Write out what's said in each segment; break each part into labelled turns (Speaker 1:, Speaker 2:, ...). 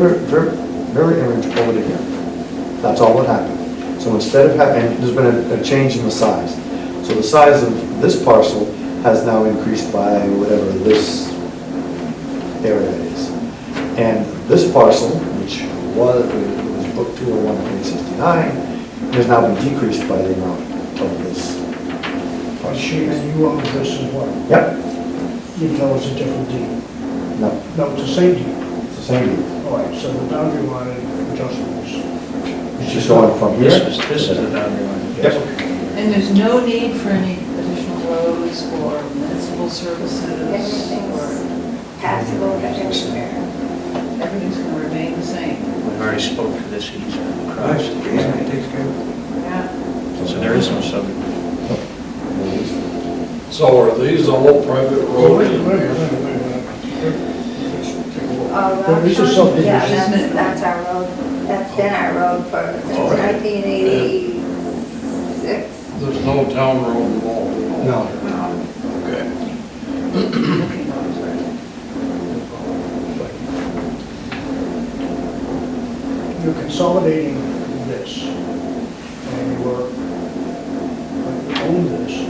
Speaker 1: Very, very very irritable to him. That's all that happened. So instead of having, there's been a, a change in the size. So the size of this parcel has now increased by whatever this area is. And this parcel, which was, it was booked two oh one three sixty-nine, has now been decreased by the amount of this.
Speaker 2: But she and you own this as well,
Speaker 1: Yep,
Speaker 2: even though it's a different deed.
Speaker 1: no,
Speaker 2: No, it's the same deed.
Speaker 1: it's the same deed.
Speaker 2: All right, so the boundary line adjustments.
Speaker 1: It's just going from here.
Speaker 3: This is, this is the boundary line.
Speaker 1: Yep,
Speaker 4: And there's no need for any additional roads or municipal services or,
Speaker 5: passable but everywhere.
Speaker 4: everything's going to remain the same.
Speaker 3: We've already spoke to this easement across.
Speaker 4: Yeah.
Speaker 3: So there is no subdivision.
Speaker 6: So are these all private
Speaker 2: Wait a minute,
Speaker 6: roads?
Speaker 2: wait a minute, wait a minute. Let's take a look.
Speaker 5: All
Speaker 2: There is a
Speaker 5: roads-
Speaker 2: subdivision.
Speaker 5: Uh, Yeah, that's, that's our road, that's been our road for, since nineteen eighty-six. Um,
Speaker 6: There's no town road involved at all?
Speaker 1: no.
Speaker 6: Okay.
Speaker 2: You're consolidating this, and you were, you own this,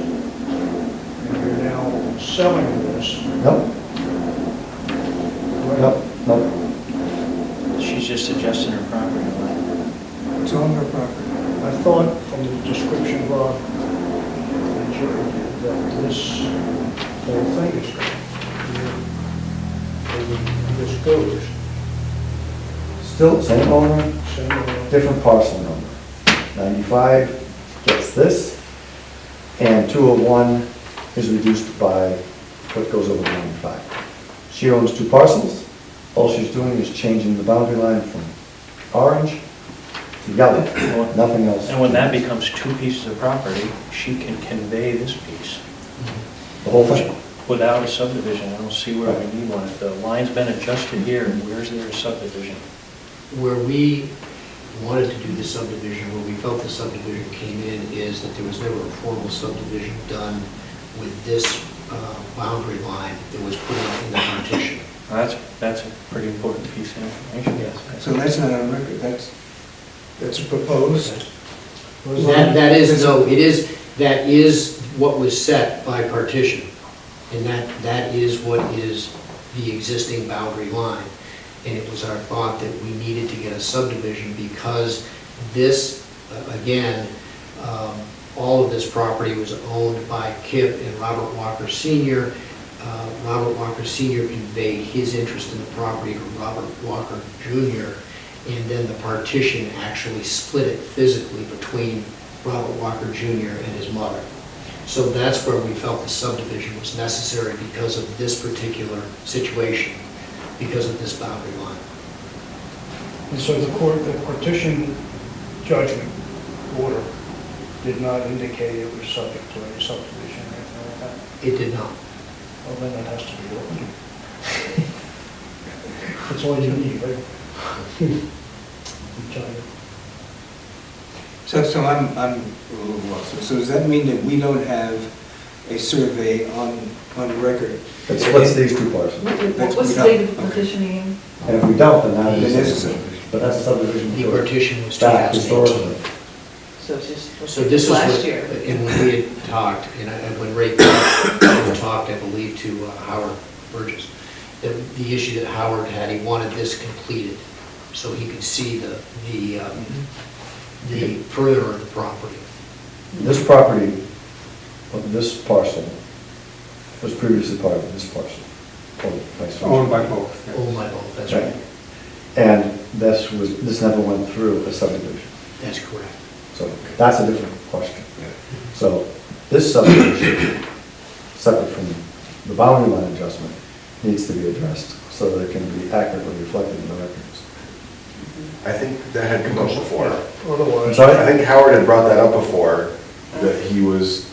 Speaker 2: and you're now selling this.
Speaker 1: Nope,
Speaker 2: correct?
Speaker 1: nope, nope.
Speaker 3: She's just adjusting her property line.
Speaker 2: It's on their property. I thought from the description, Rob, that you- that this whole thing is going to be disclosed.
Speaker 1: Still same owner,
Speaker 2: So, uh,
Speaker 1: different parcel number. 95 gets this, and 201 is reduced by what goes over 95. She owns two parcels. All she's doing is changing the boundary line from orange to yellow, nothing else.
Speaker 3: And when that becomes two pieces of property, she can convey this piece
Speaker 1: The whole thing.
Speaker 3: without a subdivision. I don't see where we need one. If the line's been adjusted here, where's there a subdivision?
Speaker 7: Where we wanted to do the subdivision, where we felt the subdivision came in, is that there was never a formal subdivision done with this uh, boundary line that was put up in the partition.
Speaker 3: That's, that's a pretty important piece of information. Yes.
Speaker 8: So that's not on record, that's, that's proposed.
Speaker 7: That, that is, no, it is, that is what was set by partition. And that, that is what is the existing boundary line. And it was our thought that we needed to get a subdivision because this, uh, again, um, all of this property was owned by Kip and Robert Walker Senior. Uh, Robert Walker Senior conveyed his interest in the property to Robert Walker Junior. And then the partition actually split it physically between Robert Walker Junior and his mother. So that's where we felt the subdivision was necessary because of this particular situation, because of this boundary line.
Speaker 2: And so the court, the partition judgment order did not indicate it was subject to any subdivision or anything like that?
Speaker 7: It did not.
Speaker 2: Well, then it has to be opened. That's all you need, right? I'm telling you.
Speaker 8: So, so I'm, I'm a little lost. So does that mean that we don't have a survey on, on record?
Speaker 1: It splits these two parcels.
Speaker 4: What was the date of the petitioning?
Speaker 1: And if we don't, then that
Speaker 8: Then
Speaker 1: is.
Speaker 8: it's a subdivision.
Speaker 1: But that's a subdivision.
Speaker 7: The
Speaker 1: for-
Speaker 7: partition was
Speaker 1: Back
Speaker 7: 2018.
Speaker 1: historically.
Speaker 4: So it's just.
Speaker 7: So this is
Speaker 4: Last
Speaker 7: what,
Speaker 4: year.
Speaker 7: and when we had talked, and I- and when Ray talked, I believe, to uh, Howard Burgess, that the issue that Howard had, he wanted this completed so he could see the, the, um,
Speaker 4: Mm-hmm.
Speaker 7: the further of the property.
Speaker 1: This property of this parcel was previously part of this parcel. or vice versa.
Speaker 8: Owned by both. yeah.
Speaker 7: Oh, my God, that's right.
Speaker 1: And this was, this never went through a subdivision.
Speaker 7: That's correct.
Speaker 1: So that's a different question. So this subdivision, separate from the boundary line adjustment, needs to be addressed so that it can be accurately reflected in the records.
Speaker 9: I think that had come up before.
Speaker 1: I'm
Speaker 2: Otherwise,
Speaker 9: I
Speaker 1: sorry?
Speaker 9: think Howard had brought that up before, that he was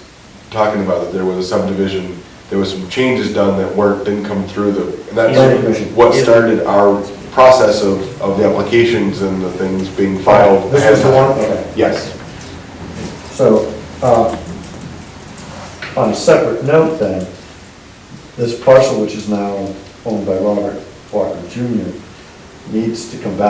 Speaker 9: talking about that there was a subdivision, there was some changes done that weren't, didn't come through the, and
Speaker 1: Planning commission.
Speaker 9: that's what started our process of, of the applications and the things being filed.
Speaker 1: This was the one? Okay.
Speaker 9: Yes.
Speaker 1: So, uh, on a separate note then, this parcel which is now owned by Robert Walker Jr. needs to come back